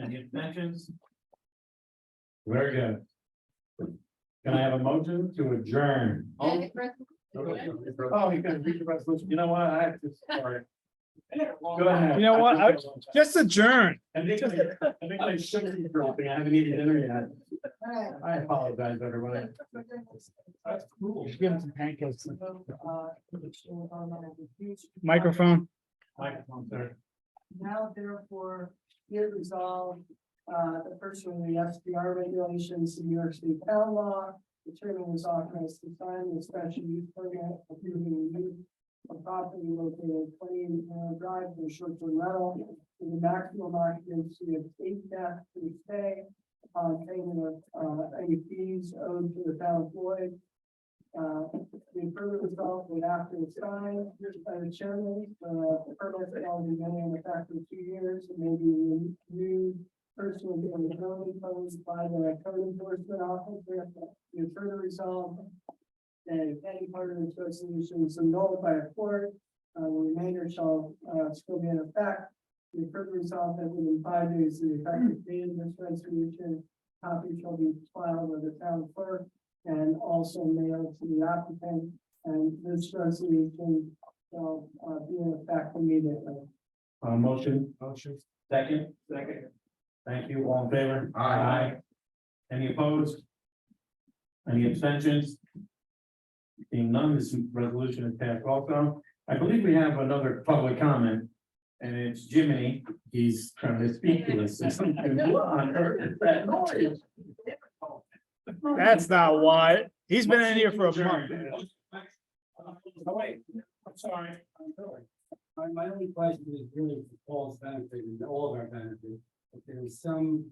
Any extensions? Very good. Can I have a motion to adjourn? All- Oh, you can read the resolution. You know what? I have to, sorry. Go ahead. You know what? I- Just adjourn. I think, I I think I should be dropping. I haven't eaten dinner yet. I apologize, everyone. That's cool. Give him some pancakes. Microphone. Microphone, sir. Now therefore, be it resolved, uh, the first one, the SDR regulations, the New York State town law, determining is authorized to sign the special use permit approving the use of property located at twenty Manor Drive for short-term rental in the maximum occupancy of eight deaths per day upon payment of, uh, any fees owed to the town of Floyd. Uh, the further result that after it's signed, here's by the chairman, uh, the permit shall be in effect in two years, and maybe new personal and building codes by the code enforcement officer. The further result that if any part of this resolution is annulled by a court, uh, the remainder shall, uh, still be in effect. The further result that within five days, of the effective date of this resolution, copy shall be filed with the town clerk and also mailed to the applicant. And this resolution shall uh, be in effect immediately. Uh, motion? Motion. Second? Second. Thank you, all in favor? Aye. Any opposed? Any abstentions? Being none, this resolution is passed also. I believe we have another public comment. And it's Jiminy, he's trying to speak to us. What on earth is that noise? That's not why. He's been in here for a month. Oh, wait, I'm sorry. I'm sorry. My, my only question is really for Paul's benefit and all of our benefit, if there is some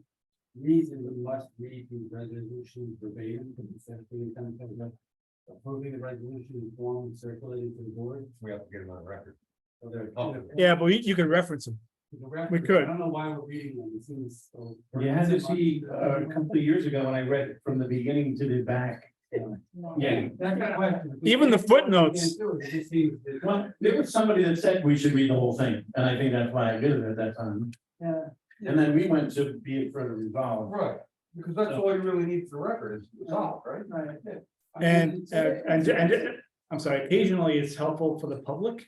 reason we must read the resolution verbatim, because it's definitely some kind of approving the resolution in form and circulating to the board. We have to get it on record. So there. Oh, Yeah, but you you could reference him. The record- we could. I don't know why we're reading them, it seems so. Yeah, I had to see uh, a couple of years ago when I read it from the beginning to the back. Yeah. That's my question. Even the footnotes. It just seems that- Well, there was somebody that said we should read the whole thing, and I think that's why I did it at that time. Yeah. And then we went to be it further resolved. Right, because that's all you really need for record is resolve, right? Right. And, uh, and, and, I'm sorry, occasionally it's helpful for the public.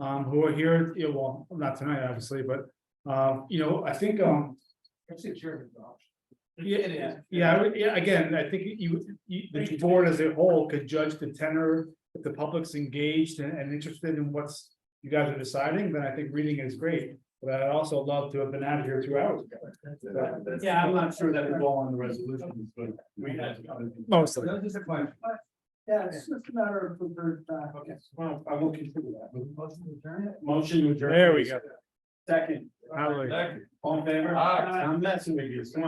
Um, who are here, you know, well, not tonight, obviously, but, um, you know, I think, um, That's a German option. Yeah, yeah, I would- yeah, again, I think you, you, the board as a whole could judge the tenor, if the public's engaged and, and interested in what's. You guys are deciding, then I think reading is great, but I'd also love to have been out of here two hours ago. Yeah, I'm not sure that was all on the resolutions, but we had to. Mostly. That was just a question. Yeah, it's just a matter of preferred fact. Okay, well, I will consider that. Motion to adjourn it? Motion to adjourn. There we go. Second, Hallelujah. all in favor? Aye. I'm messing with you, come on.